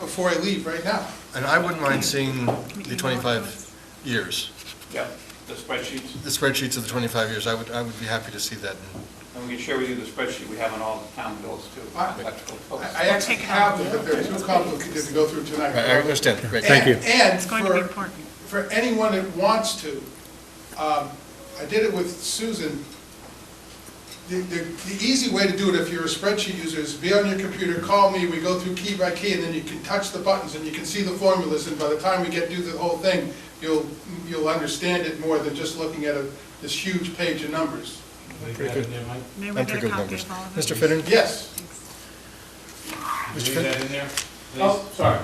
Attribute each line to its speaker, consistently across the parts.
Speaker 1: before I leave right now.
Speaker 2: And I wouldn't mind seeing the 25 years,
Speaker 3: Yeah, the spreadsheets,
Speaker 2: the spreadsheets of the 25 years. I would, I would be happy to see that.
Speaker 3: and we can share with you the spreadsheet we have on all the town bills too.
Speaker 1: I-
Speaker 3: electrical
Speaker 1: I
Speaker 3: bills.
Speaker 1: I actually have them, but they're too complicated to go through tonight.
Speaker 2: I I understand, great.
Speaker 4: Thank you.
Speaker 1: And- And
Speaker 5: It's going to be
Speaker 1: for,
Speaker 5: important.
Speaker 1: for anyone that wants to, um, I did it with Susan. The, the, the easy way to do it if you're a spreadsheet user is be on your computer, call me, we go through key by key, and then you can touch the buttons and you can see the formulas, and by the time we get through the whole thing, you'll, you'll understand it more than just looking at a, this huge page of numbers.
Speaker 2: Pretty good.
Speaker 5: May we
Speaker 2: I'm pretty
Speaker 5: get a
Speaker 2: good
Speaker 5: copy
Speaker 2: numbers.
Speaker 5: of all of
Speaker 2: Mr.
Speaker 5: it?
Speaker 2: Finnan?
Speaker 1: Yes,
Speaker 2: Mr. Finnan?
Speaker 3: Oh, sorry.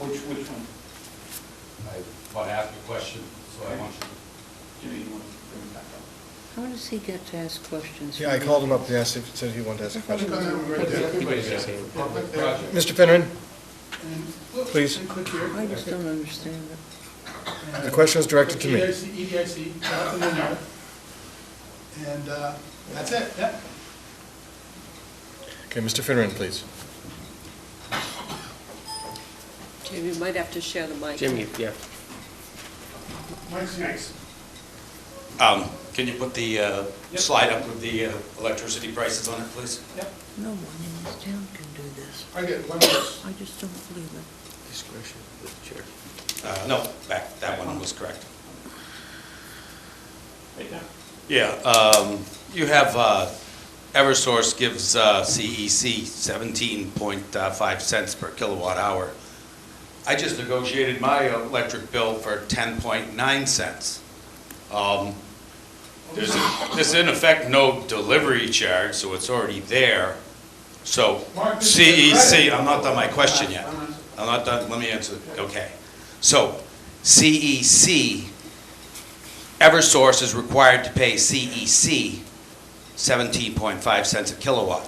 Speaker 3: Which, which one?
Speaker 6: I want to ask a question, so I want you to
Speaker 3: Jimmy, you want to bring it back up?
Speaker 7: How does he get to ask questions?
Speaker 2: Yeah, I called him up, he asked, if- said he wanted to ask a
Speaker 1: Look
Speaker 2: question.
Speaker 1: on that one right there.
Speaker 6: Everybody's asking for public project.
Speaker 2: Mr. Finnan,
Speaker 1: And look,
Speaker 2: Please.
Speaker 1: and click here.
Speaker 7: I just don't understand it.
Speaker 2: the question is directed to me.
Speaker 1: EDIC, EDIC, nothing in there. And uh, that's it, yeah.
Speaker 2: Okay, Mr. Finnan, please.
Speaker 7: Jim, you might have to share the mic.
Speaker 4: Jim, you- yeah.
Speaker 1: Mike's here.
Speaker 6: Um, Can you put the uh, slide up with the uh, electricity prices on it, please?
Speaker 7: No one in this town can do this.
Speaker 1: I get one of those.
Speaker 7: I just don't believe it.
Speaker 4: Discretion with the chair.
Speaker 6: Uh, No, back, that
Speaker 1: Uh-huh.
Speaker 6: one was correct.
Speaker 3: Right there.
Speaker 6: Yeah, um, you have, uh, Eversource gives uh, CEC 17.5 uh, cents per kilowatt hour. I just negotiated my electric bill for 10.9 cents. Um, There's, there's in effect no delivery charge, so it's already there. So
Speaker 1: Mark, this is Uh,
Speaker 6: CEC,
Speaker 1: credit.
Speaker 6: E I'm not done my question yet.
Speaker 1: I'm not-
Speaker 6: I'm not done, let me answer, okay. So CEC Eversource is required to pay E CEC 17.5 cents a kilowatt.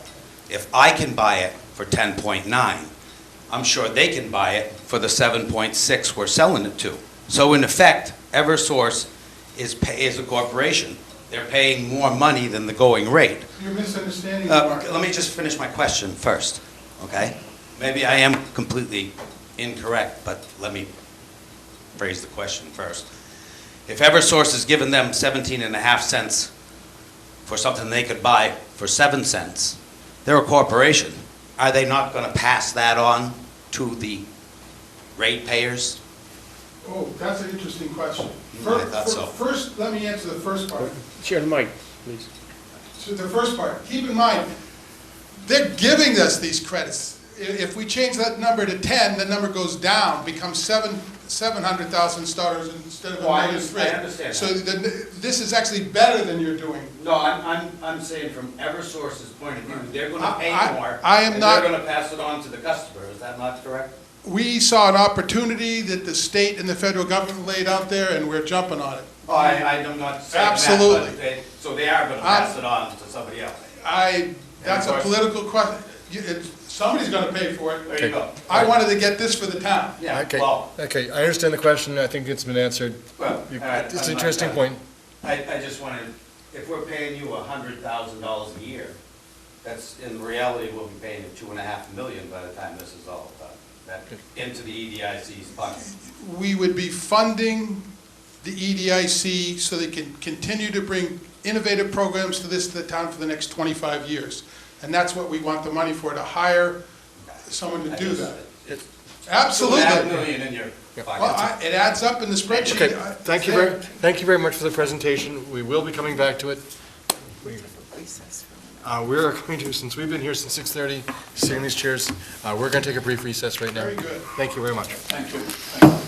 Speaker 6: If I can buy it for 10.9, I'm sure they can buy it for the 7.6 we're selling it to. So in effect, Eversource is, pay- is a corporation. They're paying more money than the going rate.
Speaker 1: You're misunderstanding,
Speaker 6: Uh,
Speaker 1: Mark.
Speaker 6: Let me just finish my question first, okay? Maybe I am completely incorrect, but let me phrase the question first. If Eversource has given them 17 and a half cents for something they could buy for 7 cents, they're a corporation. Are they not going to pass that on to the ratepayers?
Speaker 1: Oh, that's an interesting question.
Speaker 6: I thought so.
Speaker 1: Fir- fir- First, let me answer the first part.
Speaker 4: Share the mic, please.
Speaker 1: So the first part, keep in mind, they're giving us these credits. I- If we change that number to 10, the number goes down, becomes seven, 700,000 starters instead of a
Speaker 3: Oh, I
Speaker 1: minus
Speaker 3: under-
Speaker 1: three.
Speaker 3: I understand
Speaker 1: So
Speaker 3: that.
Speaker 1: the- this is actually better than you're doing.
Speaker 3: No, I'm, I'm, I'm saying from Eversource's point of view, they're gonna pay
Speaker 1: I- I-
Speaker 3: more.
Speaker 1: I am not-
Speaker 3: And they're gonna pass it on to the customer, is that not correct?
Speaker 1: We saw an opportunity that the state and the federal government laid out there, and we're jumping on it.
Speaker 3: Oh, I, I'm not saying that. but
Speaker 1: Absolutely. Ah.
Speaker 3: they- So they are gonna
Speaker 1: I-
Speaker 3: pass it on to somebody else.
Speaker 1: I, that's a
Speaker 3: And of course-
Speaker 1: political question. Somebody's going to pay for it.
Speaker 3: There you go.
Speaker 1: I wanted to get this for the town.
Speaker 3: Yeah,
Speaker 2: Okay,
Speaker 3: well,
Speaker 2: Okay, I understand the question, I think it's been answered.
Speaker 3: well.
Speaker 2: You-
Speaker 3: all right, I'm
Speaker 2: It's
Speaker 3: not
Speaker 2: an interesting
Speaker 3: done.
Speaker 2: point.
Speaker 3: I, I just wanted, if we're paying you a hundred thousand dollars a year, that's, in reality, we'll be paying you two and a half million by the time this is all done. That, into the E EDIC's bucket.
Speaker 1: we would be funding the E EDIC so they can continue to bring innovative programs to this, to the town for the next 25 years. And that's what we want the money for, to hire someone to
Speaker 3: I
Speaker 1: do
Speaker 3: just-
Speaker 1: that.
Speaker 3: it's Two and a half
Speaker 1: Absolutely.
Speaker 3: million in your
Speaker 1: Well, I-
Speaker 3: pocket.
Speaker 1: it adds up in the spreadsheet.
Speaker 2: Okay,
Speaker 1: I-
Speaker 2: thank you very, thank you very much for the presentation. We will be coming back to it. We- Uh, We're going to, since we've been here since 6:30, sitting in these chairs, uh, we're going to take a brief recess right now.
Speaker 1: Very good.
Speaker 2: Thank you very much.
Speaker 3: Thank you.